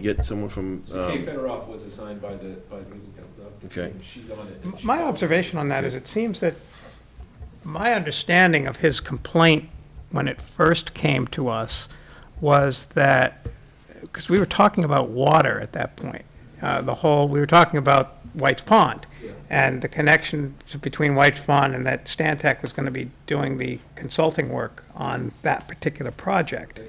get someone from, So Kay um, Federoff was assigned by the, by the legal counsel. uh, Okay. and She's on it. and she- My observation on that is it seems that my understanding of his complaint when it first came to us was that, because we were talking about water at that point, uh, the whole, we were talking about White's Pond Yeah. and the connection to- between White's Pond and that Stantec was going to be doing the consulting work on that particular project.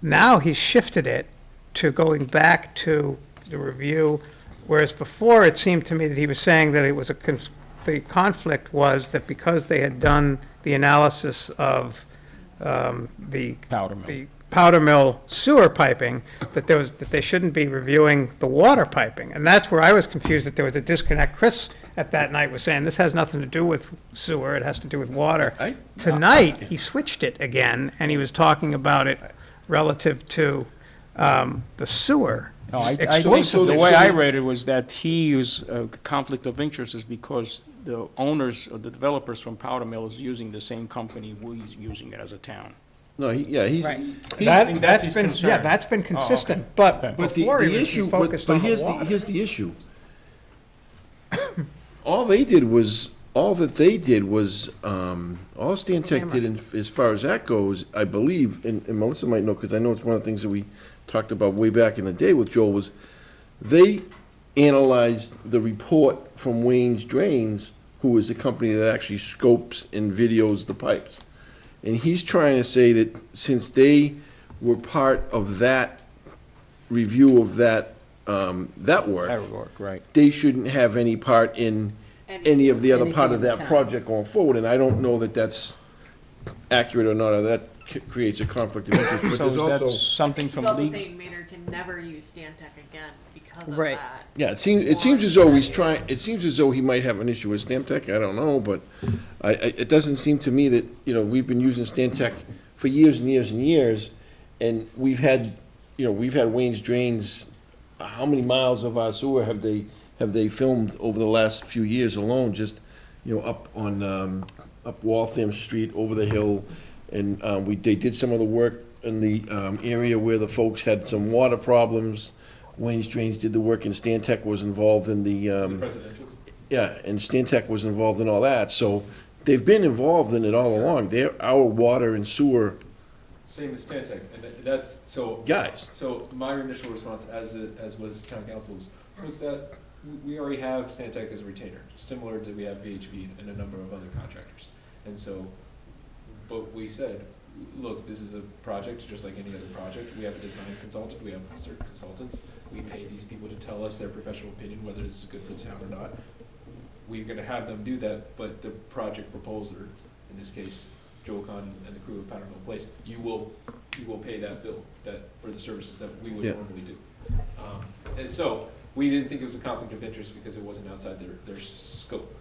Now he's shifted it to going back to the review, whereas before it seemed to me that he was saying that it was a, cons- the conflict was that because they had done the analysis of um, the powder mill. the powder mill sewer piping, that there was, that they shouldn't be reviewing the water piping. And that's where I was confused, that there was a disconnect. Chris at that night was saying, this has nothing to do with sewer, it has to do with water. I- Tonight, he switched it again, and he was talking about it relative to um, the sewer No, I, I think exclusively. the way I read it was that he is, uh, conflict of interest is because the owners, or the developers from Powder Mill is using the same company we're using it as a town. no, he- yeah, he's, Right. he's- That- think that's that's his been, yeah, concern. Oh, that's been consistent, but but the, before the he was issue, but, focused but on the here's the, water. here's the issue. All they did was, all that they did was, um, all Stan Tech did in, as far as that goes, I believe, and, and Melissa might know, because I know it's one of the things that we talked about way back in the day with Joel, was they analyzed the report from Wayne's Drains, who is the company that actually scopes and videos the pipes. And he's trying to say that since they were part of that review of that, um, that work, work, right. they shouldn't have any part in any of the other part of Anything in that town. project going forward, and I don't know that that's accurate or not, or that c- creates a conflict of interest, but So there's is that also, something He's from also legal? saying Maynard can never use Stantec again because of Right. that. yeah, it seems, it seems as though he's trying, it seems as though he might have an issue with Stantec, I don't know, but I, I, it doesn't seem to me that, you know, we've been using Stantec for years and years and years, and we've had, you know, we've had Wayne's Drains, how many miles of our sewer have they, have they filmed over the last few years alone, just, you know, up on, um, up Waltham Street, over the hill, and, um, we, they did some of the work in the, um, area where the folks had some water problems. Wayne's Drains did the work, and Stantec was involved in the, The um, presidentials. yeah, and Stantec was involved in all that, so they've been involved in it all along. They're our water and sewer Same as Stantec, and that- that's, so. guys. So my initial response, as, it- as was town council's, was that we- we already have Stantec as a retainer, similar to we have VHB and a number of other contractors. And so, but we said, look, this is a project, just like any other project, we have a design consultant, we have certain consultants, we pay these people to tell us their professional opinion, whether this is good for the town or not. We're gonna have them do that, but the project proposer, in this case, Joe Con and the crew of Powder Mill Place, you will you will pay that bill, that, for the services that we would Yeah. normally do. Um, And so, we didn't think it was a conflict of interest because it wasn't outside their, their s- scope.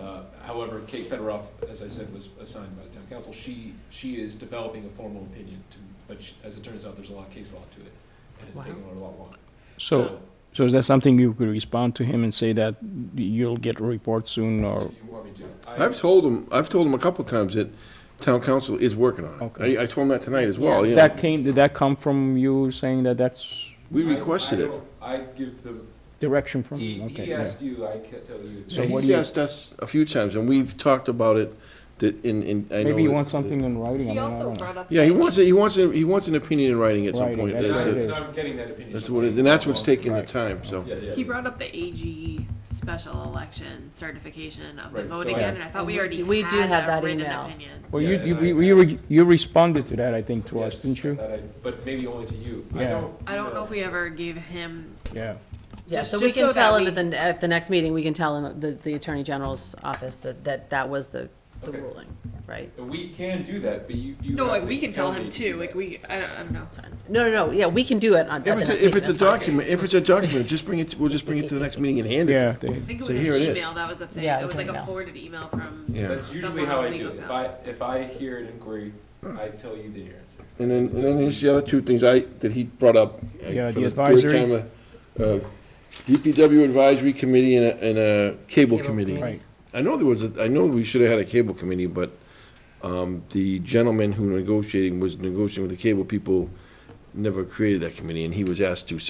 Uh, However, Kate Federoff, as I said, was assigned by the town council, she, she is developing a formal opinion to, but she- as it turns out, there's a lot of case law to it, and it's Wow. taking her a lot longer. So, so is that something you could respond to him and say that you'll get a report soon or? You want me to? I- I've told them, I've told them a couple times that town council is working on it. Okay. I, I told them that tonight as well, you know. That came, did that come from you saying that that's We I- requested I it. don't- I give the, direction from he, him? he Hmm, Okay, yeah. asked you, I can't tell you. So Yeah, what he's do you- asked us a few times, and we've talked about it, that in, in, I know. Maybe you that- want something in writing, I mean, He I also don't know. brought up. Yeah, he wants, it- he wants, it- he wants an opinion in writing at some Writing, point. that's That's what it it. And is. I'm getting that opinion. That's It's what, it- taking and that's what's so long. taking the time, so. Yeah, yeah. He yeah. brought up the AG special election certification of the Right, vote so I- again, and I thought we We already do- we do had have that that written email. opinion. Well, Yeah, you, and you, I- we- we re- you responded to that, I think, to us, Yes, didn't I you? thought I- But maybe only to you. I Yeah. don't. I don't know if we. we ever gave him, Yeah. Yeah, Just- so we just can so tell that him at the, at the next meeting, we can tell him, the, the Attorney General's office, that, that that was the, the Okay. ruling, right? We can do that, but you, you. no, have like, to we can tell me him to too, do like, that. we, I don't, I don't know. No, no, no, yeah, we can do it on, at the If it's, next a- meeting. if it's a that's fine. document, if it's a document, just bring it, to- we'll just bring it to the next meeting and hand it. Yeah, they- I think it So was an here it is. email, that was the thing, Yeah, it was like a email. forwarded email from. Yeah. That's usually someone how on I do legal it. If mail. I, if I hear an inquiry, I tell you the answer. And then, and then there's the other two things I, that he brought up. uh, Yeah, for the third advisory. time, uh, uh, DPW Advisory Committee and a, and a Cable Cable Committee. right. I know there was, a- I know we should have had a Cable Committee, but, um, the gentleman who negotiating, was negotiating with the cable people never created that committee, and he was asked to,